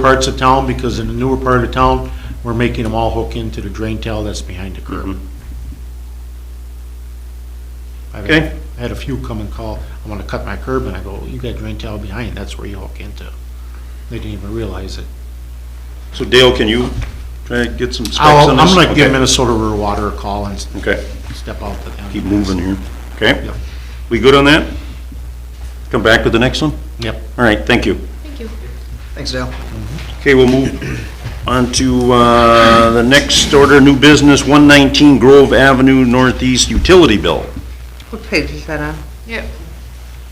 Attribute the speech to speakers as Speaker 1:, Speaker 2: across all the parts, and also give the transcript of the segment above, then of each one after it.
Speaker 1: parts of town, because in the newer part of town, we're making them all hook into the drain tile that's behind the curb. I've had-
Speaker 2: Okay.
Speaker 1: I had a few come and call, I want to cut my curb, and I go, you got drain tile behind, that's where you hook into. They didn't even realize it.
Speaker 2: So Dale, can you try to get some specs
Speaker 1: I'll,
Speaker 2: on this?
Speaker 1: Oh, I'm gonna give
Speaker 2: Okay.
Speaker 1: Minnesota Rural Water a call and s-
Speaker 2: Okay,
Speaker 1: step out to them.
Speaker 2: keep moving here. Okay,
Speaker 1: Yep,
Speaker 2: we good on that? Come back with the next one?
Speaker 1: yep.
Speaker 2: All right, thank you.
Speaker 3: Thank you.
Speaker 4: Thanks, Dale.
Speaker 2: Okay, we'll move on to uh, the next order, new business, 119 Grove Avenue Northeast Utility Bill.
Speaker 4: What page is that on?
Speaker 3: Yep.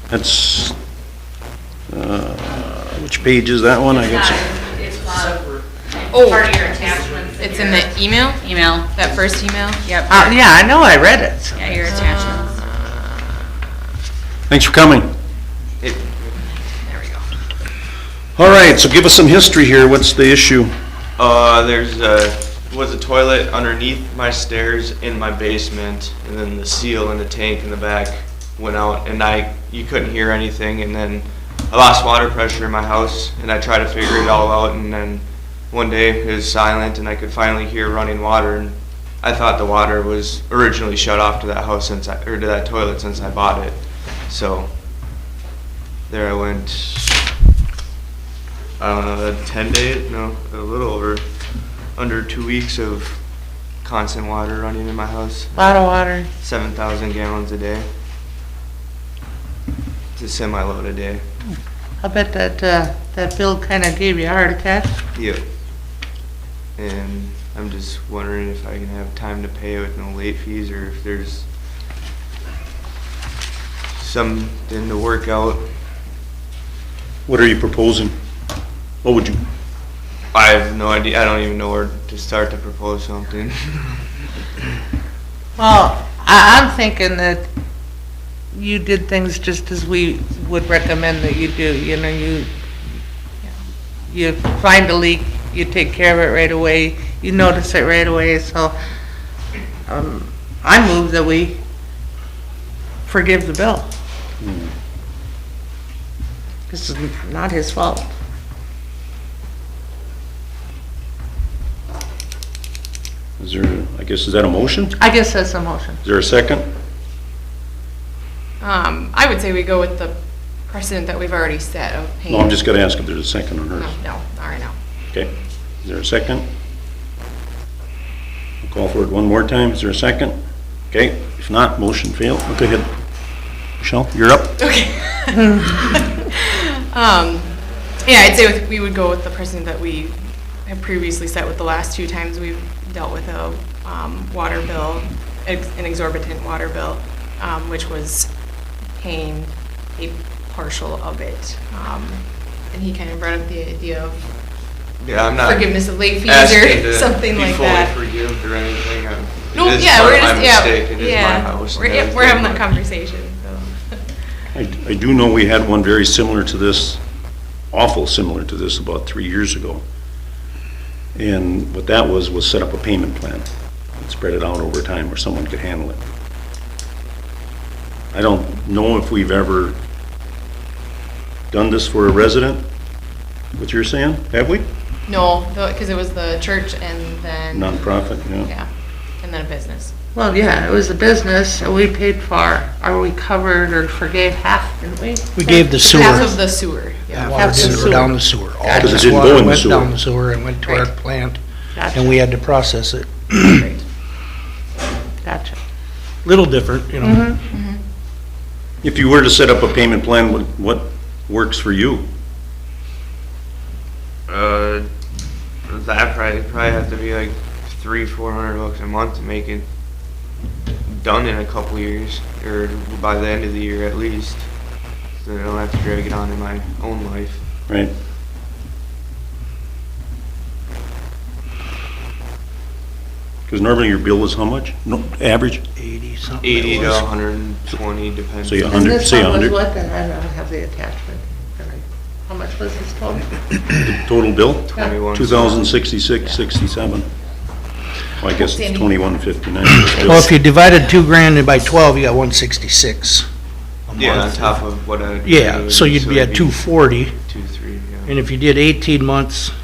Speaker 2: That's, uh, which page is that one? I guess.
Speaker 5: It's not, it's part
Speaker 3: Oh,
Speaker 5: of your attachments.
Speaker 3: it's in the email,
Speaker 5: Email.
Speaker 3: that first email? Ah, Yep.
Speaker 4: Uh, yeah, I know, I read it.
Speaker 5: Yeah, your attachments.
Speaker 2: Thanks for coming.
Speaker 5: There we go.
Speaker 2: All right, so give us some history here. What's the issue?
Speaker 6: Uh, there's a, was a toilet underneath my stairs in my basement, and then the seal in the tank in the back went out, and I, you couldn't hear anything, and then I lost water pressure in my house, and I tried to figure it all out, and then one day it was silent, and I could finally hear running water, and I thought the water was originally shut off to that house since I, or to that toilet since I bought it, so there I went I don't know, a 10 Uh, day, no, a little over, under two weeks of constant water running in my house,
Speaker 4: Lot of water.
Speaker 6: 7,000 gallons a day. It's a semi load a day.
Speaker 4: I bet that, uh, that bill kinda gave you a heart attack.
Speaker 6: Yep. And I'm just wondering if I can have time to pay with no late fees or if there's something to work out.
Speaker 2: What are you proposing? What would you,
Speaker 6: I have no idea. I don't even know where to start to propose something.
Speaker 4: Well, I, I'm thinking that you did things just as we would recommend that you do, you know, you, you find a leak, you take care of it right away, you notice it right away, so, um, I move that we forgive the bill. This is not his fault.
Speaker 2: is there, I guess, is that a motion?
Speaker 4: I guess that's a motion.
Speaker 2: Is there a second?
Speaker 3: Um, I would say we go with the precedent that we've already set of paying.
Speaker 2: No, I'm just gonna ask if there's a second on
Speaker 3: No,
Speaker 2: hers.
Speaker 3: no, all right, no.
Speaker 2: Okay, is there a second? I'll Call for it one more time, is there a second? Okay, if not, motion failed, go ahead. Michelle, you're up.
Speaker 3: Okay. Um, yeah, I'd say with- we would go with the precedent that we have previously set with the last two times we've dealt with a, um, water bill, ex- an exorbitant water bill, um, which was paying a partial of it. Um, and he kind of brought up the idea of
Speaker 6: Yeah, I'm not.
Speaker 3: forgiveness of late fees
Speaker 6: asking
Speaker 3: or
Speaker 6: Uh, to
Speaker 3: something
Speaker 6: be
Speaker 3: like
Speaker 6: fully
Speaker 3: that.
Speaker 6: forgived or anything. I'm- it
Speaker 3: No,
Speaker 6: is
Speaker 3: yeah,
Speaker 6: part
Speaker 3: we're
Speaker 6: of my
Speaker 3: just, yeah,
Speaker 6: mistake. It is my
Speaker 3: yeah.
Speaker 6: house and
Speaker 3: We're, yeah, we're
Speaker 6: everything,
Speaker 3: having that
Speaker 6: but-
Speaker 3: conversation, so.
Speaker 2: I, I do know we had one very similar to this, awful similar to this about three years ago. And what that was, was set up a payment plan, and spread it out over time where someone could handle it. I don't know if we've ever done this for a resident, what you're saying, have we?
Speaker 3: No, because it was the church and then.
Speaker 2: Nonprofit, yeah.
Speaker 3: Yeah, and then a business.
Speaker 4: Well, yeah, it was a business, and we paid for, or we covered or forgave half, didn't we?
Speaker 7: We gave the sewer,
Speaker 3: Half of the sewer,
Speaker 7: Yeah,
Speaker 3: yeah.
Speaker 7: water
Speaker 4: Half the
Speaker 7: didn't
Speaker 4: sewer.
Speaker 7: go down the sewer. All
Speaker 2: Yeah, 'cause it
Speaker 7: this
Speaker 2: didn't go
Speaker 7: water
Speaker 2: in the
Speaker 7: went
Speaker 2: sewer.
Speaker 7: Down the sewer and went to our
Speaker 3: Right.
Speaker 7: plant, and
Speaker 4: Gotcha,
Speaker 7: we had to process it.
Speaker 4: gotcha.
Speaker 7: Little different, you
Speaker 4: Mm-hmm.
Speaker 7: know.
Speaker 2: If you were to set up a payment plan, what, what works for you?
Speaker 6: Uh, that probably probably have to be like three, four hundred bucks a month to make it done in a couple years, or by the end of the year at least. So I don't have to drag it on in my own life.
Speaker 2: Right. Because normally your bill is how much? No, average?
Speaker 7: Eighty something. it
Speaker 6: Eighty to
Speaker 7: was.
Speaker 6: hundred and twenty, depends.
Speaker 2: So you-
Speaker 4: And
Speaker 2: 100,
Speaker 4: this
Speaker 2: say
Speaker 4: one was
Speaker 2: 100.
Speaker 4: what then? I don't have the attachment. How much was this total?
Speaker 2: Total bill?
Speaker 6: Twenty-one.
Speaker 2: Two thousand sixty-six, sixty-seven. Well, I guess it's twenty-one fifty-nine.
Speaker 7: Well, if you divided two grand by twelve, you got one sixty-six.
Speaker 6: Yeah, on top of what I.
Speaker 7: Yeah, so you'd be at two forty,
Speaker 6: Two, three, yeah.
Speaker 7: And if you did eighteen months,